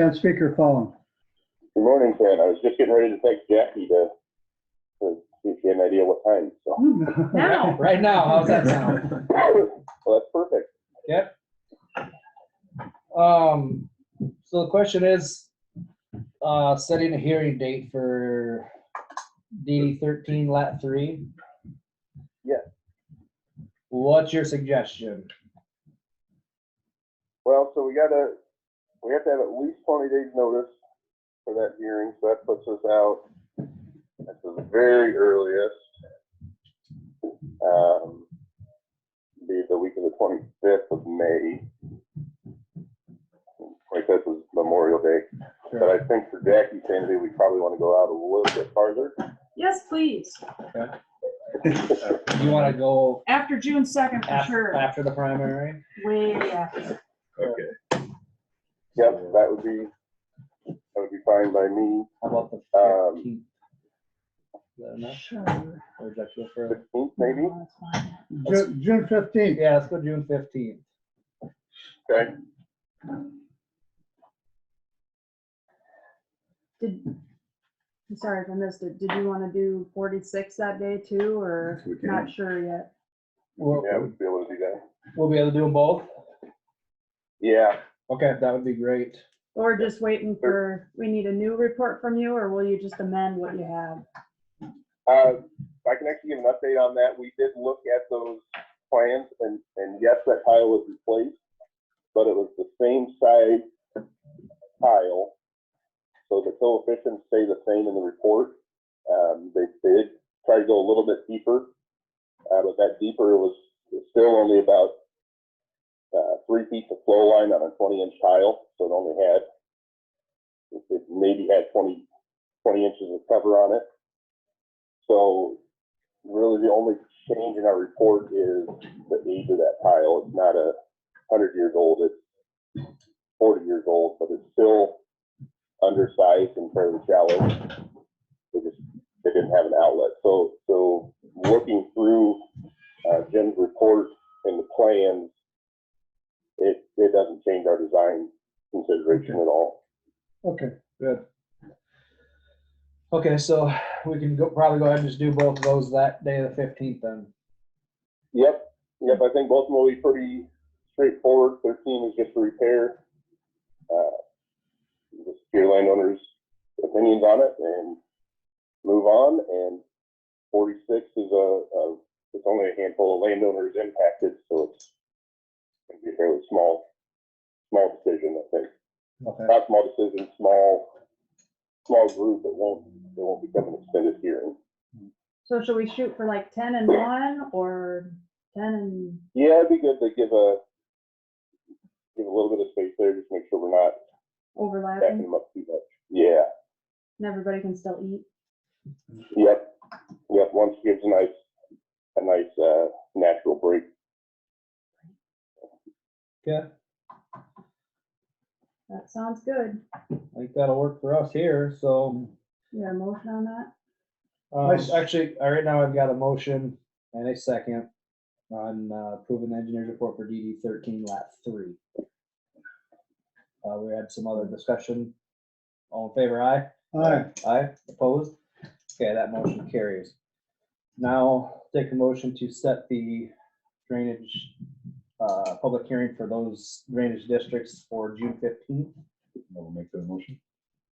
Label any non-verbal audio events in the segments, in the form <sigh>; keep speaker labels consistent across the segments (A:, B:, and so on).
A: It's on speakerphone.
B: Good morning, Fran. I was just getting ready to text Jackie to, to see if she had an idea what time, so.
C: Now.
D: Right now, how's that sound?
B: Well, that's perfect.
D: Um, so the question is, uh, setting a hearing date for DD thirteen lat three?
B: Yeah.
D: What's your suggestion?
B: Well, so we gotta, we have to have at least twenty days notice for that hearing, so that puts us out at the very earliest. Um, be the week of the twenty-fifth of May. Twenty-fifth was Memorial Day, but I think for Jackie's sanity, we probably wanna go out a little bit farther.
C: Yes, please.
D: You wanna go
C: After June second, for
D: after,
C: sure.
D: after the primary?
C: Way after.
E: Okay,
B: Yep, that would be, that would be fine by me.
D: How about the
B: Um,
D: fifteenth? Is that enough?
C: Sure.
D: Or is that too far?
B: Fifteenth, maybe?
C: No, that's fine.
A: Ju- June fifteenth.
D: Yeah, let's go June fifteenth.
B: Okay.
C: Did, I'm sorry if I missed it. Did you want to do forty-six that day too, or
E: Yes, we can.
C: not sure yet?
D: We'll,
B: Yeah, we'd be able to do that.
D: we'll be able to do them both?
B: Yeah,
D: Okay, that would be great.
C: Or just waiting for, we need a new report from you, or will you just amend what you have?
B: uh, I can actually give an update on that. We did look at those plans and, and yes, that tile was replaced, but it was the same size tile. So the coefficients stay the same in the report. Um, they they did try to go a little bit deeper. Uh, but that deeper was was still only about uh, three feet of flow line on a twenty inch tile, so it only had it it maybe had 20 20 inches of cover on it. So really the only change in our report is the age of that tile. It's not a hundred years old, it's forty years old, but it's still undersized and fairly shallow. They just, they didn't have an outlet. So, so looking through uh, Jim's report and the plans, it, it doesn't change our design consideration at all.
D: Okay, good. Okay, so we can go, probably go ahead and just do both of those that day of the fifteenth then.
B: Yep, yep, I think both of them will be pretty straightforward, thirteen is just a repair. Uh, Just your landowners' opinions on it and move on, and forty-six is a, a, it's only a handful of landowners impacted, so it's gonna be a fairly small, small decision, I think.
D: Okay,
B: Not small decision, small, small group, it won't, it won't become an extended hearing.
C: So should we shoot for like ten and one, or ten and,
B: Yeah, it'd be good to give a, give a little bit of space there, just make sure we're not backing
C: overlapping,
B: them up too much. Yeah,
C: and everybody can still eat?
B: yep, yep, once gives a nice, a nice, uh, natural break.
D: yeah,
C: That sounds good.
D: I think that'll work for us here, so.
C: You got a motion on that?
D: Um,
A: Nice.
D: actually, uh, right now I've got a motion and a second on uh, approving the engineer's report for DD thirteen lap three. Uh, we had some other discussion. All in favor, aye?
A: Aye.
D: Aye, opposed? Okay, that motion carries. Now, take a motion to set the drainage, uh, public hearing for those drainage districts for June fifteenth.
E: I'll make that motion.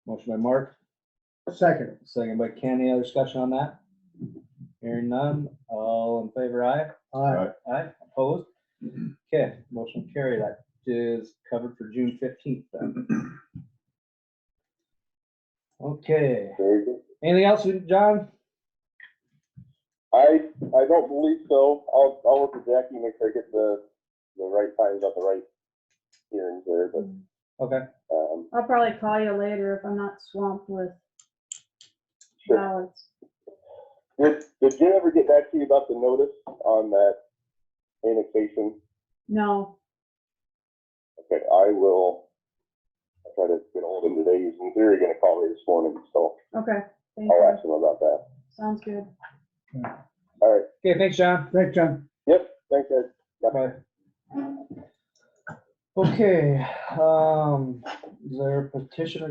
D: Motion by Mark,
A: Second.
D: second by Ken, any other discussion on that? Hearing none, all in favor, aye?
A: Aye.
D: Aye, opposed? Okay, motion carried, that is covered for June fifteenth then.
E: <clears throat>
D: Okay,
B: Very good.
D: anything else, John?
B: I, I don't believe so. I'll, I'll work with Jackie, make sure I get the, the right times on the right hearings there, but,
D: Okay.
B: um,
C: I'll probably call you later if I'm not swamped with
B: Sure.
C: ballots.
B: did, did Jim ever get back to you about the notice on that annexation?
C: No,
B: Okay, I will, I'll try to get ahold of him today. He's in theory gonna call me this morning, so
C: okay, thank
B: I'll
C: you,
B: ask him about that.
C: sounds good.
B: All right,
D: Okay, thanks, John.
A: Thanks, John.
B: yep, thanks, guys.
D: Bye. Okay, um, is there a petition or